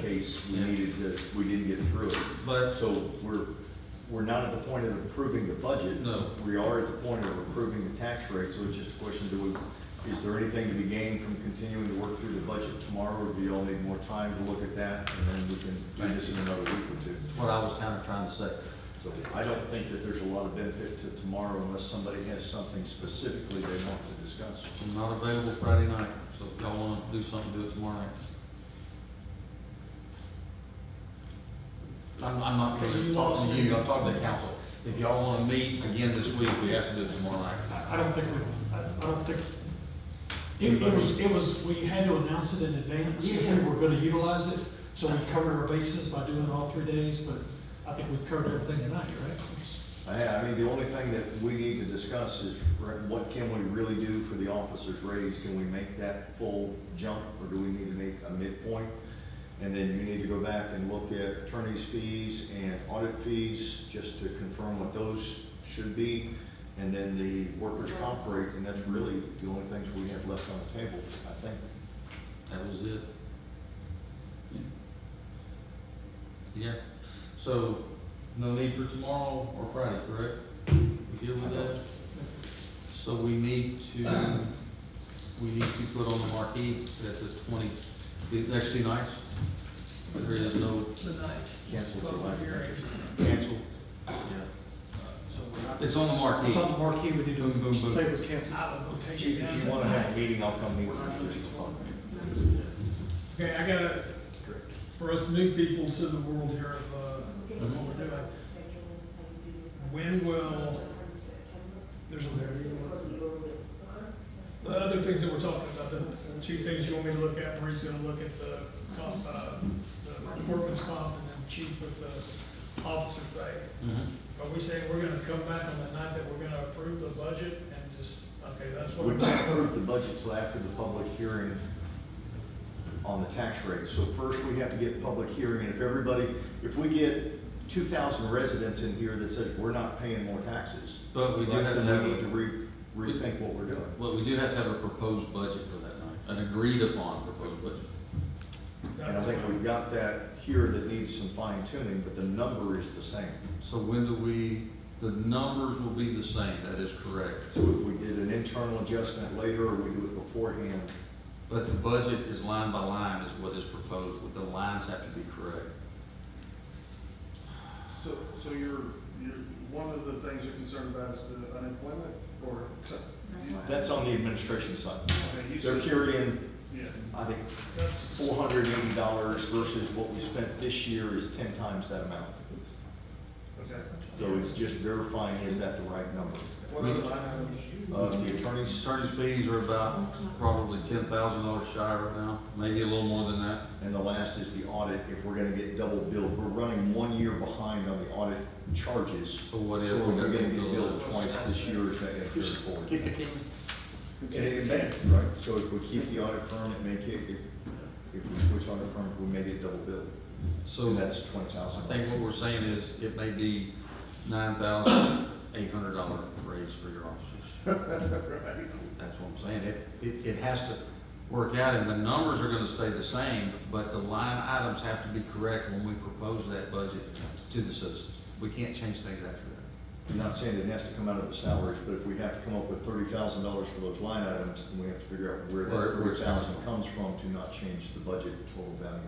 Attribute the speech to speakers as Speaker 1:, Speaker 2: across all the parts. Speaker 1: case, we
Speaker 2: Yeah.
Speaker 1: needed to, we didn't get through it.
Speaker 2: But
Speaker 1: So we're, we're not at the point of approving the budget.
Speaker 2: No.
Speaker 1: We are at the point of approving the tax rate, so it's just a question, do we, is there anything to be gained from continuing to work through the budget tomorrow? Or do you all need more time to look at that, and then we can do this in another week or two?
Speaker 2: that's what I was kind of trying to say.
Speaker 1: So I don't think that there's a lot of benefit to tomorrow unless somebody has something specifically they want to discuss.
Speaker 2: I'm not available Friday night, so if y'all want to do something, do it tomorrow night. I'm, I'm not going to talk to you, I'm talking to the council. If y'all want to meet again this week, we have to do it tomorrow night.
Speaker 3: I I don't think, we- I I don't think, it it was, it was, we had to announce it in advance if we were gonna utilize it, so we covered our bases by doing all three days, but I think we've covered everything tonight, right?
Speaker 1: I, I mean, the only thing that we need to discuss is right, what can we really do for the officers' raise? Can we make that full jump or do we need to make a midpoint? And then you need to go back and look at attorney's fees and audit fees, just to confirm what those should be. And then the workers' comp rate, and that's really the only things we have left on the table, I think.
Speaker 2: That was it. Yeah, so no need for tomorrow or Friday, correct? We deal with that? So we need to, we need to put on the marquee at the twenty, the next two nights. There is no
Speaker 4: The night.
Speaker 1: Cancel the
Speaker 4: Public
Speaker 1: night.
Speaker 4: hearing.
Speaker 2: cancel. Yeah. It's on the marquee.
Speaker 3: It's on the marquee, we need
Speaker 2: Boom, boom, boom.
Speaker 3: to say it was canceled.
Speaker 4: I will go take
Speaker 1: Chief,
Speaker 4: you
Speaker 1: if
Speaker 4: guys.
Speaker 1: you want to have a meeting, I'll come meet with you.
Speaker 4: Okay, I gotta,
Speaker 1: Correct.
Speaker 4: for us new people to the world here of, uh, what we're doing, when will, there's a there. The other things that we're talking about, the two things you want me to look at, Marie's gonna look at the comp, uh, the workman's comp and then chief with the officer pay.
Speaker 2: Mhm.
Speaker 4: Are we saying we're gonna come back on the night that we're gonna approve the budget and just, okay, that's what
Speaker 1: We
Speaker 4: we're
Speaker 1: would not approve the budget till after the public hearing on the tax rate. So first, we have to get public hearing, and if everybody, if we get two thousand residents in here that says, we're not paying more taxes,
Speaker 2: But Oh, we do have to
Speaker 1: then
Speaker 2: have,
Speaker 1: we need to
Speaker 2: a-
Speaker 1: re, rethink what we're doing.
Speaker 2: well, we do have to have a proposed budget for that night, an agreed upon proposed budget.
Speaker 1: And I think we've got that here that needs some fine tuning, but the number is the same.
Speaker 2: So when do we, the numbers will be the same, that is correct.
Speaker 1: So if we did an internal adjustment later, or we do it beforehand,
Speaker 2: But the budget is line by line is what is proposed, the lines have to be correct.
Speaker 5: So, so you're, you're, one of the things you're concerned about is the unemployment, or?
Speaker 1: that's on the administration side.
Speaker 5: Okay, you
Speaker 1: They're
Speaker 5: said-
Speaker 1: carrying,
Speaker 5: Yeah,
Speaker 1: I think,
Speaker 4: That's,
Speaker 1: four hundred and eighty dollars versus what we spent this year is ten times that amount.
Speaker 5: okay.
Speaker 1: So it's just verifying, is that the right number?
Speaker 5: What are the line items?
Speaker 1: Uh, the attorneys,
Speaker 2: Attorney's fees are about probably ten thousand dollars shy right now, maybe a little more than that.
Speaker 1: and the last is the audit, if we're gonna get double billed, we're running one year behind on the audit charges.
Speaker 2: So what if
Speaker 1: So
Speaker 2: we
Speaker 1: we're
Speaker 2: got
Speaker 1: gonna
Speaker 2: to
Speaker 1: get
Speaker 2: build?
Speaker 1: billed twice this year, is that gonna carry forward?
Speaker 2: Kick the
Speaker 1: And it may, right, so if we keep the audit firm, it may kick, if, if we switch audit firms, we may get double billed,
Speaker 2: So
Speaker 1: so that's twenty
Speaker 2: I
Speaker 1: thousand.
Speaker 2: think what we're saying is it may be nine thousand eight hundred dollar raise for your officers. That's what I'm saying. It, it, it has to work out and the numbers are gonna stay the same, but the line items have to be correct when we propose that budget to the citizens. We can't change things after that.
Speaker 1: I'm not saying it has to come out of the salaries, but if we have to come up with thirty thousand dollars for those line items, then we have to figure out where
Speaker 2: Where-
Speaker 1: that
Speaker 2: where it's
Speaker 1: thirty thousand
Speaker 2: coming
Speaker 1: comes from to not change the budget total value.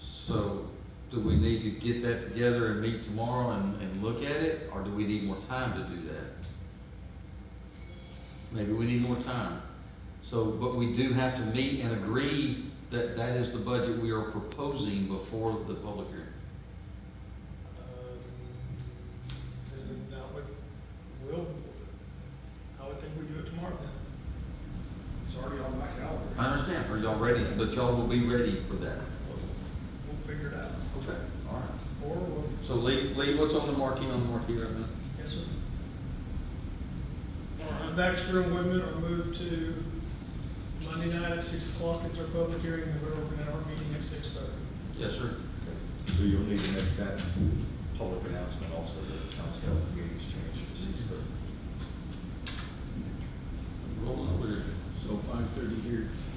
Speaker 2: So, do we need to get that together and meet tomorrow and, and look at it, or do we need more time to do that? Maybe we need more time. So, but we do have to meet and agree that that is the budget we are proposing before the public hearing.
Speaker 4: um, now, we, will, I would think we do it tomorrow then.
Speaker 5: It's already on my calendar.
Speaker 2: I understand, are y'all ready, but y'all will be ready for that.
Speaker 4: We'll figure it out.
Speaker 2: Okay. All right.
Speaker 4: Or, we'll
Speaker 2: So Lee, Lee, what's on the marquee, on the marquee right now?
Speaker 4: yes, sir. All right, Baxter and Whitman are moved to Monday night at six o'clock. It's our public hearing, and we're opening our meeting at six thirty.
Speaker 2: Yes, sir. Mm-hmm.
Speaker 1: So you'll need to make that public announcement also that the council meetings changed to six thirty.
Speaker 2: Rolling over here.
Speaker 6: So five thirty here,